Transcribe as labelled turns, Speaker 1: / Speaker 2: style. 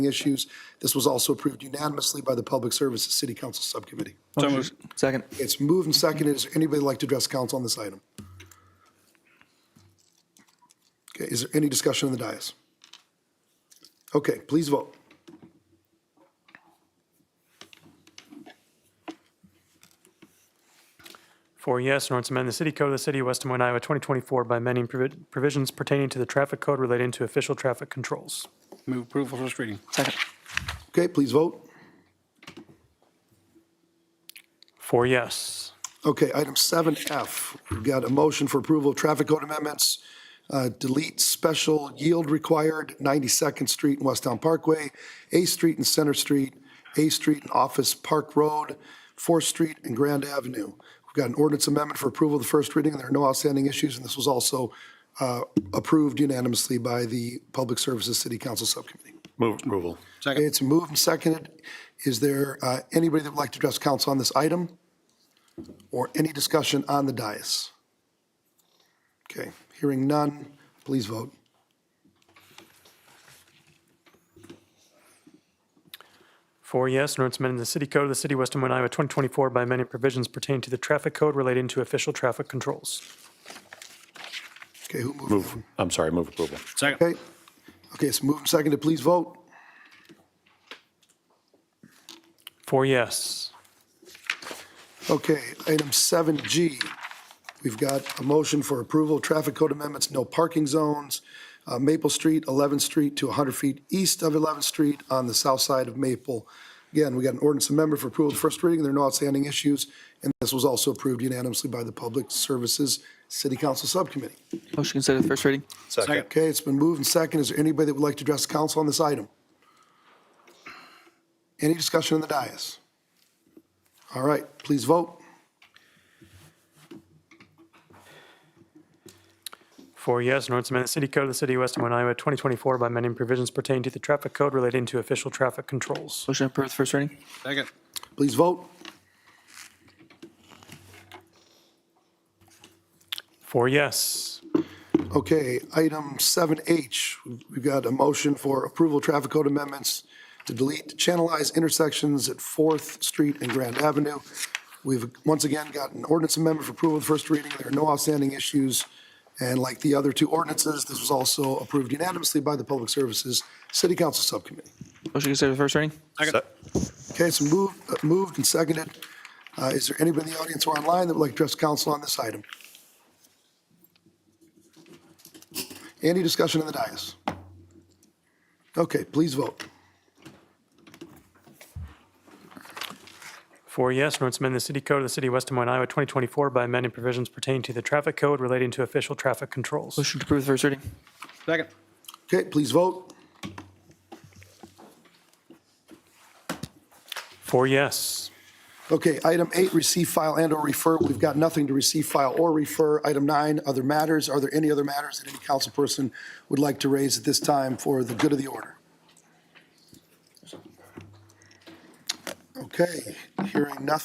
Speaker 1: issues. This was also approved unanimously by the Public Services City Council Subcommittee.
Speaker 2: So moved.
Speaker 3: Second.
Speaker 1: It's moved and seconded. Is there anybody that'd like to address council on this item? Okay, is there any discussion on the dais? Okay, please vote.
Speaker 4: Four yes, an ordinance amending the city code of the city of West Des Moines, Iowa, 2024 by amending provi- provisions pertaining to the traffic code relating to official traffic controls.
Speaker 2: Move approval first reading.
Speaker 3: Second.
Speaker 1: Okay, please vote.
Speaker 4: Four yes.
Speaker 1: Okay, item 7F, we've got a motion for approval of traffic code amendments, uh, delete special yield required, 92nd Street and Westtown Parkway, A Street and Center Street, A Street and Office Park Road, 4th Street and Grand Avenue. We've got an ordinance amendment for approval of the first reading, and there are no outstanding issues, and this was also uh, approved unanimously by the Public Services City Council Subcommittee.
Speaker 5: Move approval.
Speaker 1: Okay, It's moved and seconded. Is there uh, anybody that would like to address council on this item? Or any discussion on the dais? Okay, hearing none, please vote.
Speaker 4: Four yes, an ordinance amending the city code of the city of West Des Moines, Iowa, 2024 by amending provisions pertaining to the traffic code relating to official traffic controls.
Speaker 1: Okay, who moved?
Speaker 5: Move, I'm sorry, move approval.
Speaker 2: Second.
Speaker 1: Okay, okay, it's moved and seconded, please vote.
Speaker 4: Four yes.
Speaker 1: Okay, item 7G, we've got a motion for approval, of traffic code amendments, no parking zones, uh, Maple Street, 11th Street to 100 feet east of 11th Street on the south side of Maple. Again, we got an ordinance amendment for approval of first reading, there are no outstanding issues, and this was also approved unanimously by the Public Services City Council Subcommittee.
Speaker 3: Motion to consider the first reading.
Speaker 2: Second.
Speaker 1: Okay, it's been moved and seconded. Is there anybody that would like to address the council on this item? Any discussion on the dais? All right, please vote.
Speaker 4: Four yes, an ordinance amending the city code of the city of West Des Moines, Iowa, 2024 by amending provisions pertaining to the traffic code relating to official traffic controls.
Speaker 3: Motion to approve the first reading.
Speaker 2: Second.
Speaker 1: Please vote.
Speaker 4: Four yes.
Speaker 1: Okay, item 7H, we've got a motion for approval of traffic code amendments to delete channelized intersections at Fourth Street and Grand Avenue. We've once again got an ordinance amendment for approval of the first reading. There are no outstanding issues. And like the other two ordinances, this was also approved unanimously by the Public Services City Council Subcommittee.
Speaker 3: Motion to consider the first reading.
Speaker 2: Second.
Speaker 1: Okay, it's moved, uh, moved and seconded. Uh, Is there anybody in the audience or online that would like to address council on this item? Any discussion on the dais? Okay, please vote.
Speaker 4: Four yes, an ordinance amending the city code of the city of West Des Moines, Iowa, 2024 by amending provisions pertaining to the traffic code relating to official traffic controls.
Speaker 3: Motion to approve the first reading.
Speaker 2: Second.
Speaker 1: Okay, please vote.
Speaker 4: Four yes.
Speaker 1: Okay, item eight, receive, file, and/or refer. We've got nothing to receive, file, or refer. Item nine, other matters. Are there any other matters that any council person would like to raise at this time for the good of the order? Okay, hearing nothing.